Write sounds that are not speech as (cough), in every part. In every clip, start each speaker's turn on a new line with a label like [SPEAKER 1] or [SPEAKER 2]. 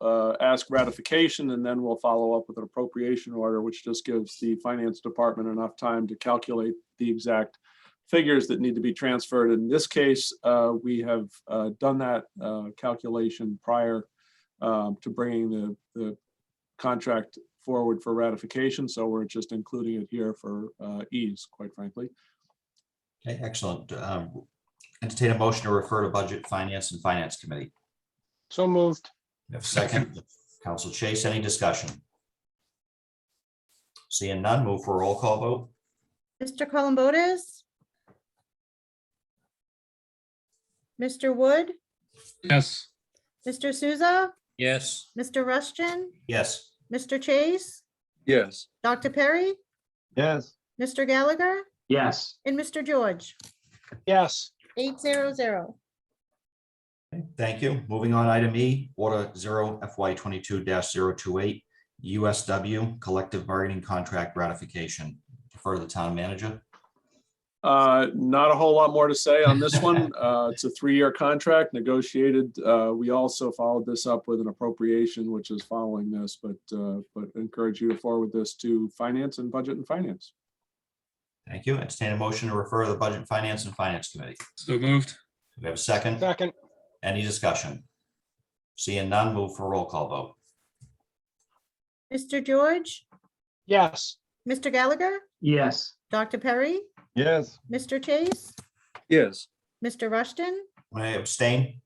[SPEAKER 1] uh, ask ratification, and then we'll follow up with an appropriation order, which just gives the finance department enough time to calculate the exact figures that need to be transferred. In this case, uh, we have uh, done that uh, calculation prior um, to bringing the, the contract forward for ratification, so we're just including it here for uh, ease, quite frankly.
[SPEAKER 2] Okay, excellent. Um, Entertain a motion to refer to Budget, Finance, and Finance Committee.
[SPEAKER 3] So moved.
[SPEAKER 2] We have a Second, Council Chase, any discussion? Seeing none, move for a roll call vote.
[SPEAKER 4] Mr. Columbotus? Mr. Wood?
[SPEAKER 5] Yes.
[SPEAKER 4] Mr. Souza?
[SPEAKER 5] Yes.
[SPEAKER 4] Mr. Rushton?
[SPEAKER 2] Yes,
[SPEAKER 4] Mr. Chase?
[SPEAKER 5] Yes.
[SPEAKER 4] Dr. Perry?
[SPEAKER 3] Yes.
[SPEAKER 4] Mr. Gallagher?
[SPEAKER 3] Yes.
[SPEAKER 4] And Mr. George?
[SPEAKER 3] Yes.
[SPEAKER 4] Eight zero zero.
[SPEAKER 2] Okay, thank you. Moving on, item E, Order Zero FY twenty-two 28 USW Collective Bargaining Contract Ratification. Defer to the Town Manager.
[SPEAKER 1] Uh, Not a whole lot more to say on this one.
[SPEAKER 5] (laughs)
[SPEAKER 1] Uh, It's a three-year contract negotiated. Uh, We also followed this up with an appropriation, which is following this, but, uh, but encourage you to forward this to finance and budget and finance.
[SPEAKER 2] Thank you. Entertain a motion to refer to the Budget, Finance, and Finance Committee.
[SPEAKER 5] So moved.
[SPEAKER 2] Do We have a second.
[SPEAKER 3] Second.
[SPEAKER 2] Any discussion? Seeing none, move for a roll call vote.
[SPEAKER 4] Mr. George?
[SPEAKER 3] Yes.
[SPEAKER 4] Mr. Gallagher?
[SPEAKER 3] Yes.
[SPEAKER 4] Dr. Perry?
[SPEAKER 3] Yes.
[SPEAKER 4] Mr. Chase?
[SPEAKER 5] Yes.
[SPEAKER 4] Mr. Rushton?
[SPEAKER 2] May I abstain?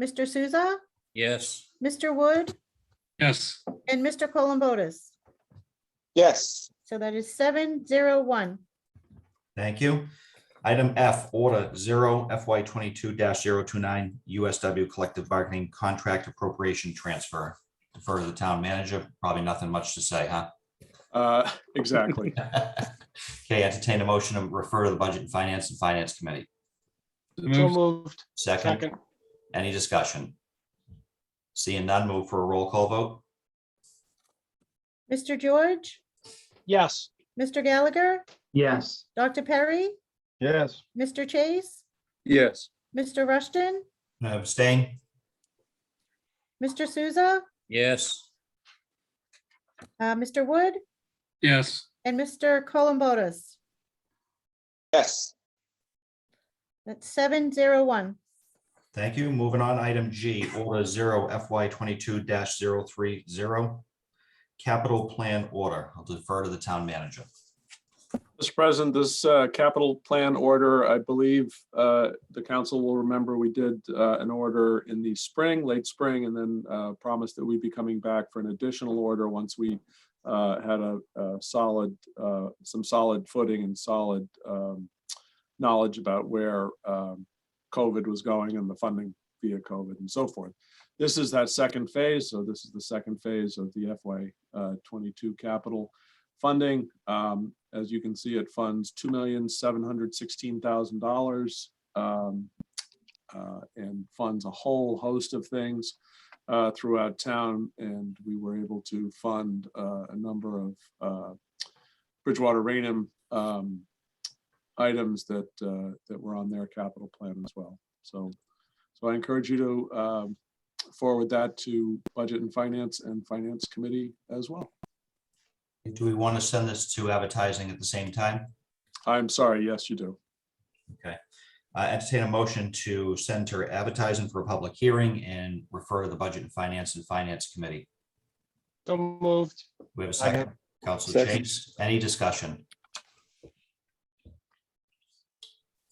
[SPEAKER 4] Mr. Souza?
[SPEAKER 5] Yes.
[SPEAKER 4] Mr. Wood?
[SPEAKER 5] Yes.
[SPEAKER 4] And Mr. Columbotus?
[SPEAKER 3] Yes.
[SPEAKER 4] So that is seven zero one.
[SPEAKER 2] Thank you. Item F, Order Zero FY twenty-two 29 USW Collective Bargaining Contract Appropriation Transfer. Defer to the Town Manager. Probably nothing much to say, huh? (laughs)
[SPEAKER 1] Uh, (laughs) Exactly.
[SPEAKER 2] Okay, entertain a motion to refer to the Budget and Finance and Finance Committee.
[SPEAKER 3] So
[SPEAKER 5] Moved.
[SPEAKER 3] moved.
[SPEAKER 2] Second,
[SPEAKER 3] Second.
[SPEAKER 2] any discussion? Seeing none, move for a roll call vote.
[SPEAKER 4] Mr. George?
[SPEAKER 3] Yes.
[SPEAKER 4] Mr. Gallagher?
[SPEAKER 3] Yes.
[SPEAKER 4] Dr. Perry?
[SPEAKER 3] Yes.
[SPEAKER 4] Mr. Chase?
[SPEAKER 5] (laughs) Yes.
[SPEAKER 4] Mr. Rushton?
[SPEAKER 2] Abstain?
[SPEAKER 4] Mr. Souza?
[SPEAKER 5] Yes.
[SPEAKER 4] uh, Mr. Wood?
[SPEAKER 5] Yes.
[SPEAKER 4] And Mr. Columbotus?
[SPEAKER 3] Yes.
[SPEAKER 4] That's seven zero one.
[SPEAKER 2] Thank you. Moving on, item G, Order Zero FY twenty-two 30 Capital Plan Order. I'll defer to the Town Manager.
[SPEAKER 1] Mr. President, this uh, capital plan order, I believe uh, the council will remember we did uh, an order in the spring, late spring, and then uh, promised that we'd be coming back for an additional order once we uh, had a a solid, uh, some solid footing and solid um, knowledge about where um, COVID was going and the funding via COVID and so forth. This is that second phase, so this is the second phase of the FY uh, 22 capital funding. Um, as you can see, it funds two million, seven hundred sixteen thousand dollars. um, uh, and funds a whole host of things uh, throughout town. And we were able to fund uh, a number of uh, Bridgewater Rainham um, items that, uh, that were on their capital plan as well. So, so I encourage you to um, forward that to Budget and Finance and Finance Committee as well.
[SPEAKER 2] Do we want to send this to advertising at the same time?
[SPEAKER 1] I'm sorry, yes, you do.
[SPEAKER 2] Uh, entertain a motion to send to advertising for a public hearing and refer to the Budget and Finance and Finance Committee.
[SPEAKER 3] So moved.
[SPEAKER 2] We have a
[SPEAKER 3] Second.
[SPEAKER 2] second. Council Chase, any discussion?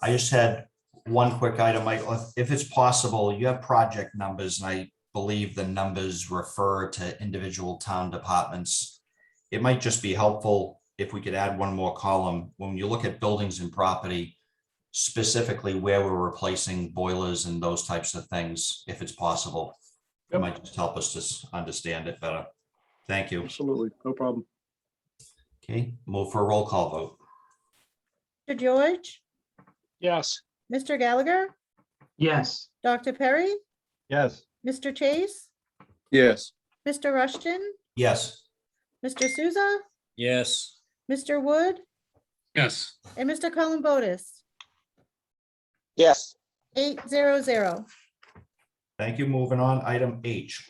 [SPEAKER 2] I just had one quick item, Michael. If- If it's possible, you have project numbers, and I believe the numbers refer to individual town departments. It might just be helpful if we could add one more column. When you look at buildings and property, specifically where we're replacing boilers and those types of things, if it's possible. It
[SPEAKER 1] Yep.
[SPEAKER 2] might just help us to s- understand it better. Thank you.
[SPEAKER 1] Absolutely, no problem.
[SPEAKER 2] Okay, move for a roll call vote.
[SPEAKER 4] Mr. George?
[SPEAKER 3] Yes.
[SPEAKER 4] Mr. Gallagher?
[SPEAKER 3] Yes.
[SPEAKER 4] Dr. Perry?
[SPEAKER 3] Yes.
[SPEAKER 4] Mr. Chase?
[SPEAKER 5] Yes.
[SPEAKER 4] Mr. Rushton?
[SPEAKER 2] Yes,
[SPEAKER 4] Mr. Souza?
[SPEAKER 5] Yes.
[SPEAKER 4] Mr. Wood?
[SPEAKER 5] Yes.
[SPEAKER 4] And Mr. Columbotus?
[SPEAKER 3] Yes.
[SPEAKER 4] Eight zero zero.
[SPEAKER 2] thank you. Moving on, item H,